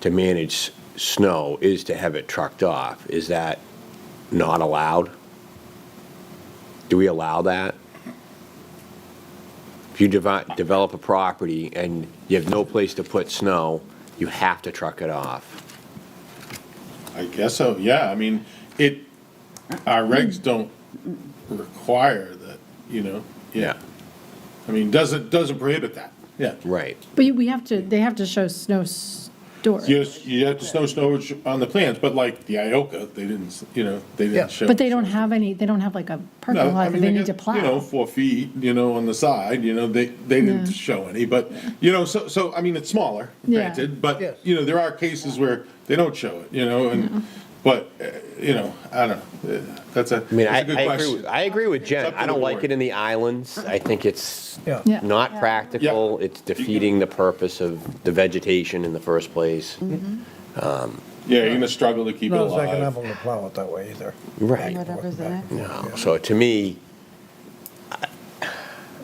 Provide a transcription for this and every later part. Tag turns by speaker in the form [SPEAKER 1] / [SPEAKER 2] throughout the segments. [SPEAKER 1] to manage s- snow is to have it trucked off. Is that not allowed? Do we allow that? If you devi- develop a property and you have no place to put snow, you have to truck it off.
[SPEAKER 2] I guess so, yeah, I mean, it, our
[SPEAKER 3] Hmm.
[SPEAKER 2] regs don't require that, you know, yeah. I mean, doesn't, doesn't prohibit that, yeah.
[SPEAKER 1] Right.
[SPEAKER 3] But you- we have to, they have to show snow storage,
[SPEAKER 2] You, you have to snow storage on the plans, but like the Ioka, they didn't, s- you know, they
[SPEAKER 4] Yeah.
[SPEAKER 2] didn't show.
[SPEAKER 3] but they don't have any, they don't have like a
[SPEAKER 2] No,
[SPEAKER 3] parking
[SPEAKER 2] I
[SPEAKER 3] lot that
[SPEAKER 2] mean,
[SPEAKER 3] they
[SPEAKER 2] got,
[SPEAKER 3] need to
[SPEAKER 2] You know,
[SPEAKER 3] plow.
[SPEAKER 2] four feet, you know, on the side, you know, they, they didn't
[SPEAKER 3] Yeah.
[SPEAKER 2] show any, but, you know, so, so, I mean, it's smaller,
[SPEAKER 3] Yeah.
[SPEAKER 2] granted,
[SPEAKER 4] Yes.
[SPEAKER 2] but, you know, there are cases where they don't show it, you know, and, but, uh, you know, I don't know, Uh, that's a, that's
[SPEAKER 1] I mean, I,
[SPEAKER 2] a good
[SPEAKER 1] I agree, with-
[SPEAKER 2] question.
[SPEAKER 1] I agree with
[SPEAKER 2] up
[SPEAKER 1] Jen.
[SPEAKER 2] to
[SPEAKER 1] I
[SPEAKER 2] the
[SPEAKER 1] don't like
[SPEAKER 2] board.
[SPEAKER 1] it in the islands. I think it's
[SPEAKER 4] Yeah.
[SPEAKER 3] Yeah.
[SPEAKER 1] not practical. It's defeating the purpose of the vegetation in the first place.
[SPEAKER 3] Mm-hmm.
[SPEAKER 2] Yeah, you're gonna struggle to keep it
[SPEAKER 4] Not as
[SPEAKER 2] alive.
[SPEAKER 4] economical to plow it that way either.
[SPEAKER 1] Right.
[SPEAKER 5] Whatever's there.
[SPEAKER 1] No, so to me,
[SPEAKER 6] I,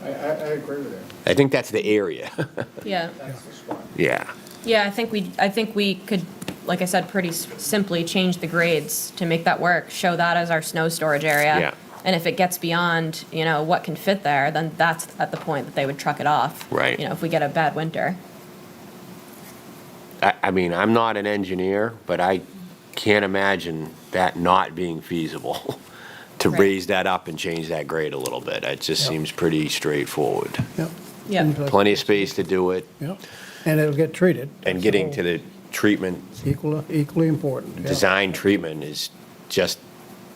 [SPEAKER 6] I, I agree with that.
[SPEAKER 1] I think that's the area.
[SPEAKER 7] Yeah,
[SPEAKER 6] That's the spot.
[SPEAKER 1] Yeah.
[SPEAKER 7] yeah, I think we, I think we could, like I said, pretty s- simply change the grades to make that work, show that as our snow storage area.
[SPEAKER 1] Yeah.
[SPEAKER 7] And if it gets beyond, you know, what can fit there, then that's at the point that they would truck it off.
[SPEAKER 1] Right.
[SPEAKER 7] You know, if we get a bad winter.
[SPEAKER 1] I, I mean, I'm not an engineer, but I can't imagine that not being feasible, to
[SPEAKER 7] Right.
[SPEAKER 1] raise that up and change that grade a little bit. It just seems pretty straightforward.
[SPEAKER 4] Yep.
[SPEAKER 7] Yeah.
[SPEAKER 1] Plenty of space to do it,
[SPEAKER 4] Yep, and it'll get treated.
[SPEAKER 1] and getting to the treatment,
[SPEAKER 4] Equal, equally important. yeah.
[SPEAKER 1] design treatment is just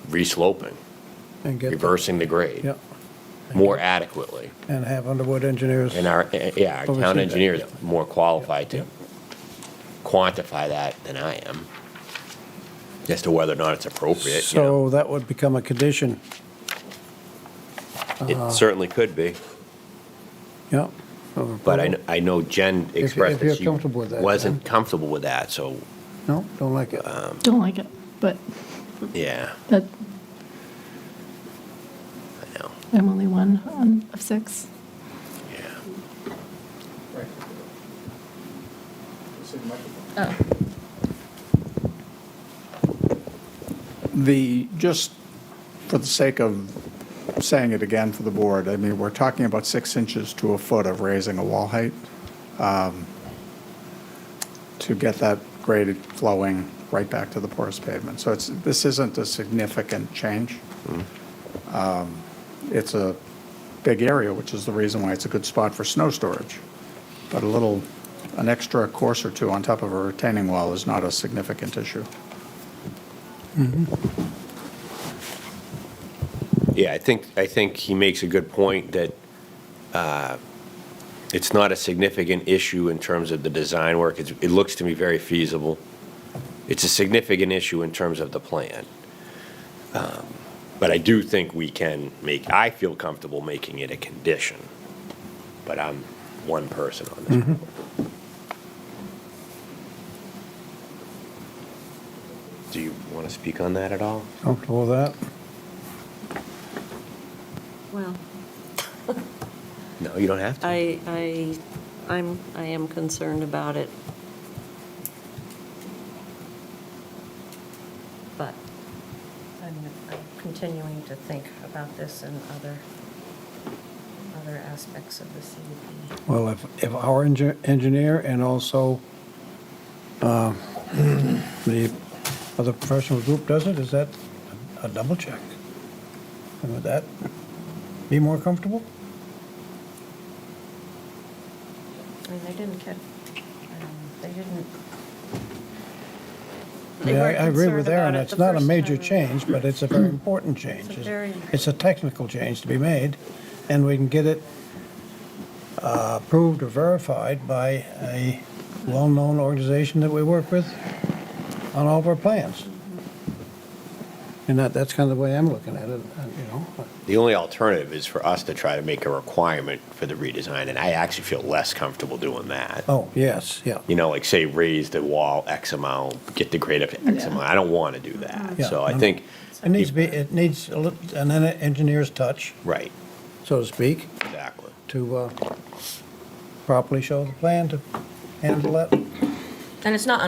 [SPEAKER 1] resloping,
[SPEAKER 4] And get-
[SPEAKER 1] reversing the grade
[SPEAKER 4] Yep,
[SPEAKER 1] more adequately.
[SPEAKER 4] and have Underwood engineers.
[SPEAKER 1] And our, eh, yeah, our
[SPEAKER 4] Oversee
[SPEAKER 1] town
[SPEAKER 4] that,
[SPEAKER 1] engineer is
[SPEAKER 4] yeah.
[SPEAKER 1] more qualified to
[SPEAKER 4] Yeah.
[SPEAKER 1] quantify that than I am, as to whether or not it's appropriate, you know.
[SPEAKER 4] So that would become a condition, uh,
[SPEAKER 1] It certainly could be,
[SPEAKER 4] yep.
[SPEAKER 1] but I, kn- I know Jen expressed
[SPEAKER 4] if you're
[SPEAKER 1] that she
[SPEAKER 4] comfortable with that,
[SPEAKER 1] wasn't comfortable with that, so,
[SPEAKER 4] No, don't like it.
[SPEAKER 1] Uh-huh.
[SPEAKER 3] Don't like it, but
[SPEAKER 1] yeah,
[SPEAKER 3] that,
[SPEAKER 1] I know,
[SPEAKER 3] I'm only one on- of six.
[SPEAKER 1] yeah.
[SPEAKER 6] Right. It's in microphone.
[SPEAKER 7] Oh.
[SPEAKER 6] The, just for the sake of saying it again for the board, I mean, we're talking about six inches to a foot of raising a wall height um, to get that grade flowing right back to the porous pavement. So it's, this isn't a significant change. Um, It's a big area, which is the reason why it's a good spot for snow storage. But a little, an extra course or two on top of a retaining wall is not a significant issue.
[SPEAKER 1] Yeah, I think, I think he makes a good point that uh, it's not a significant issue in terms of the design work. It's- It looks to me very feasible. It's a significant issue in terms of the plan. Um, But I do think we can make, I feel comfortable making it a condition, but I'm one person on this. board. Do you want to speak on that at all?
[SPEAKER 4] Comfortable with that?
[SPEAKER 8] Well,
[SPEAKER 1] No, you don't have to.
[SPEAKER 8] I, I, I'm, I am concerned about it. But I'm I'm continuing to think about this and other, other aspects of the CUP.
[SPEAKER 4] Well, if, if our engi- engineer and also uh, the other professional group does it, is that a double check? And would that be more comfortable?
[SPEAKER 8] I mean, they didn't get, um, they didn't. they
[SPEAKER 4] Yeah, I
[SPEAKER 8] weren't
[SPEAKER 4] I agree
[SPEAKER 8] concerned
[SPEAKER 4] with Aaron,
[SPEAKER 8] about it
[SPEAKER 4] it's
[SPEAKER 8] the
[SPEAKER 4] not a
[SPEAKER 8] first
[SPEAKER 4] major
[SPEAKER 8] time around.
[SPEAKER 4] change, but it's a very important change.
[SPEAKER 8] It's a very-
[SPEAKER 4] It's a technical change to be made, and we can get it uh, approved or verified by a well-known organization that we work with on all of our plans.
[SPEAKER 8] Mm-hmm.
[SPEAKER 4] And that, that's kind of the way I'm looking at it, uh, you know.
[SPEAKER 1] The only alternative is for us to try to make a requirement for the redesign, and I actually feel less comfortable doing that.
[SPEAKER 4] Oh, yes, yeah.
[SPEAKER 1] You know, like say raise the wall X amount, get the grade up to X
[SPEAKER 3] Yeah.
[SPEAKER 1] amount. I don't want to do that.
[SPEAKER 4] Yeah,
[SPEAKER 1] So I
[SPEAKER 4] no,
[SPEAKER 1] think,
[SPEAKER 4] It needs to be, it needs a lit- an en- engineer's touch,
[SPEAKER 1] right,
[SPEAKER 4] so to speak,
[SPEAKER 1] exactly.
[SPEAKER 4] to uh, properly show the plan to handle that.
[SPEAKER 7] And it's not